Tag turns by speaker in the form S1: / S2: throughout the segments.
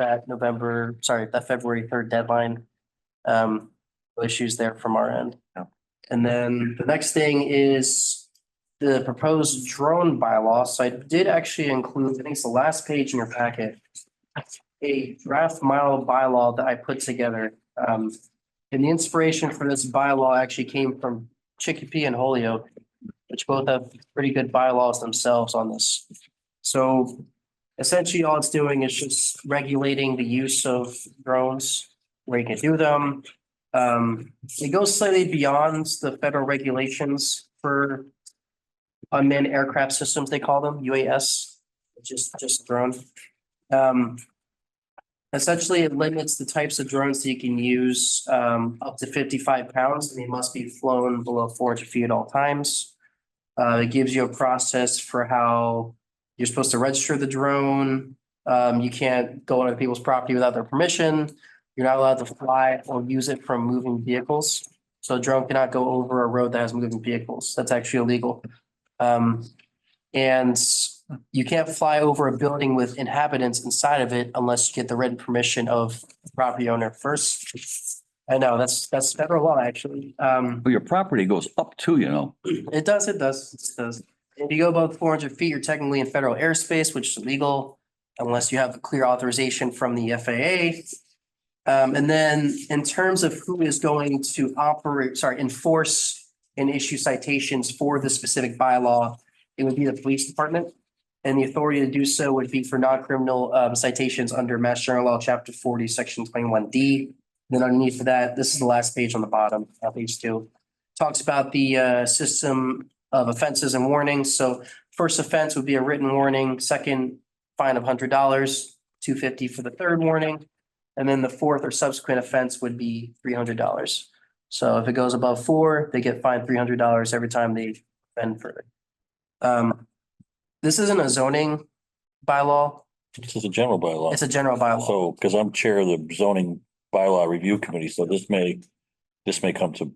S1: that November, sorry, that February third deadline. Um, no issues there from our end.
S2: No.
S1: And then the next thing is the proposed drone bylaw. So I did actually include, I think it's the last page in your packet. A draft model bylaw that I put together. Um, and the inspiration for this bylaw actually came from Chicopee and Holyoke, which both have pretty good bylaws themselves on this. So essentially, all it's doing is just regulating the use of drones, where you can do them. Um, it goes slightly beyond the federal regulations for unmanned aircraft systems, they call them, UAS, which is just a drone. Um, essentially, it limits the types of drones that you can use, um, up to fifty-five pounds, and they must be flown below four hundred feet at all times. Uh, it gives you a process for how you're supposed to register the drone. Um, you can't go on other people's property without their permission. You're not allowed to fly or use it from moving vehicles. So a drone cannot go over a road that has moving vehicles. That's actually illegal. Um, and you can't fly over a building with inhabitants inside of it unless you get the written permission of the property owner first. I know, that's, that's federal law, actually. Um,
S2: Well, your property goes up to, you know,
S1: it does, it does, it does. If you go above four hundred feet, you're technically in federal airspace, which is illegal unless you have clear authorization from the FAA. Um, and then in terms of who is going to operate, sorry, enforce and issue citations for the specific bylaw, it would be the police department. And the authority to do so would be for non-criminal um, citations under Mass General Law, Chapter forty, Section twenty-one D. Then underneath that, this is the last page on the bottom, uh, page two talks about the uh, system of offenses and warnings. So first offense would be a written warning, second fine of hundred dollars, two fifty for the third warning. And then the fourth or subsequent offense would be three hundred dollars. So if it goes above four, they get fined three hundred dollars every time they offend further. Um, This isn't a zoning bylaw,
S3: This is a general
S1: it's
S3: bylaw.
S1: a general bylaw.
S3: So, because I'm chair of the zoning bylaw review committee, so this may, this may come to,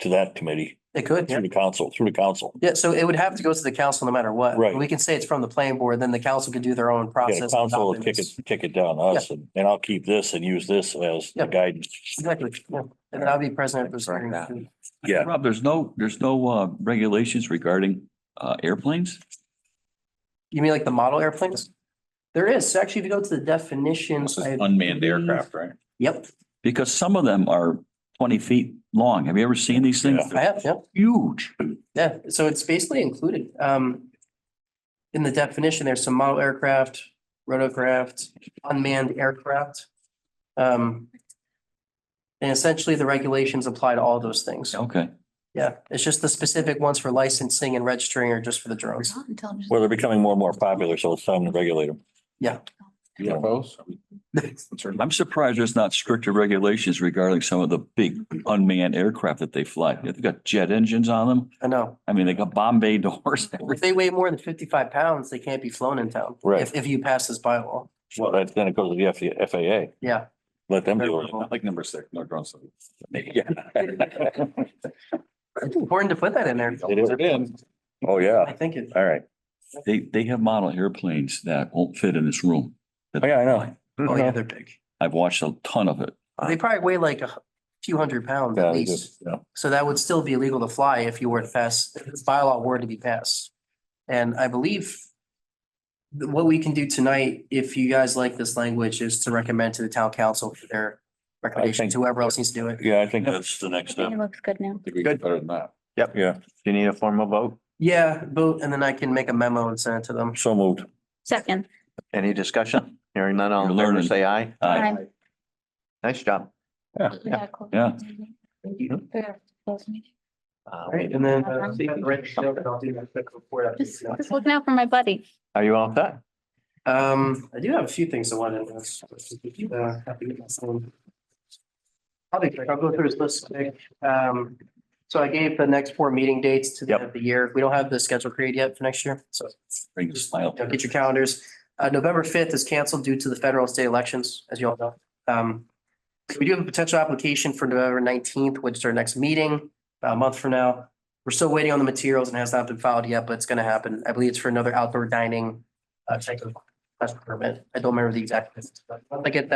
S3: to that committee
S1: It could, yeah.
S3: through the council, through the council.
S1: Yeah, so it would have to go to the council no matter what.
S3: Right.
S1: We can say it's from the planning board, then the council could do their own
S3: Yeah, the
S1: process. and
S3: council will
S1: document
S3: kick
S1: this.
S3: it, kick it down to us and, and I'll keep this and use this as
S1: Yeah.
S3: the guidance.
S1: Exactly, yeah. And then I'll be president of this
S4: Correct
S1: hearing
S4: that.
S1: too.
S3: Yeah.
S2: Rob, there's no, there's no uh regulations regarding uh airplanes?
S1: You mean like the model airplanes? There is, actually, if you go to the definitions.
S5: This is
S1: I-
S5: unmanned aircraft, right?
S1: Yep,
S2: Because some of them are twenty feet long. Have you ever seen these things?
S3: Yeah.
S1: I
S2: They're
S1: have, yep,
S2: Huge.
S1: yeah, so it's basically included, um. In the definition, there's some model aircraft, rotocraft, unmanned aircraft. Um. And essentially, the regulations apply to all those things.
S2: Okay.
S1: Yeah, it's just the specific ones for licensing and registering are just for the drones.
S3: Well, they're becoming more and more popular, so it's time to regulate them. Yeah.
S5: UFOs? Concerned about-
S2: I'm surprised there's not stricter regulations regarding some of the big unmanned aircraft that they fly. They've got jet engines on them.
S1: I know.
S2: I mean, they got Bombay doors.
S1: If
S2: and everything.
S1: they weigh more than fifty-five pounds, they can't be flown in town.
S3: Right.
S1: If, if you pass this bylaw,
S3: Well, that, then it goes to the F- FAA.
S1: yeah.
S3: Let them do
S5: I like number six, no drones. Yeah.
S1: It's Important to put that in there.
S3: It is.
S5: Put it in.
S3: Oh, yeah.
S1: I think it,
S3: All right.
S2: They, they have model airplanes that won't fit in this room.
S3: Oh, yeah, I know.
S1: oh yeah, they're big.
S2: I've watched a ton of it.
S1: They probably weigh like a few hundred pounds
S3: Yeah,
S1: at
S3: they
S1: least.
S3: just- yeah.
S1: So that would still be illegal to fly if you were to pass, if this bylaw were to be passed. And I believe th- what we can do tonight, if you guys like this language, is to recommend to the town council for their recommendations, whoever else needs to do it.
S3: Yeah, I think that's the next step.
S6: It looks good now.
S5: I think we can do Better than that.
S3: Yeah,
S4: Do you need a formal vote?
S1: Yeah, vote, and then I can make a memo and send it to them.
S3: so moved.
S6: Second.
S4: Any discussion? Hearing none, all in
S2: You're
S4: favor,
S2: learning.
S4: say aye.
S2: Uh,
S6: Time.
S4: Nice job.
S6: We gotta close
S2: Yeah.
S6: the meeting. We gotta close the meeting.
S4: Uh,
S1: All right, and then. uh,
S6: Uh-huh.
S1: see if I can write this down, but I'll do that quick before I-
S6: Just just looking out for my buddy.
S4: Are you all set?
S1: Um, I do have a few things I wanted to ask. uh, have to get my phone. I'll be quick. I'll go through this list quick. Um, so I gave the next four meeting dates to the end of the year. We don't have the schedule created yet for next year, so
S2: Bring a smile.
S1: you know, get your calendars. Uh, November fifth is canceled due to the federal and state elections, as you all know. Um, we do have a potential application for November nineteenth, which is our next meeting, about a month from now. We're still waiting on the materials and has not been filed yet, but it's gonna happen. I believe it's for another outdoor dining uh, type of special permit. I don't remember the exact. but once I get that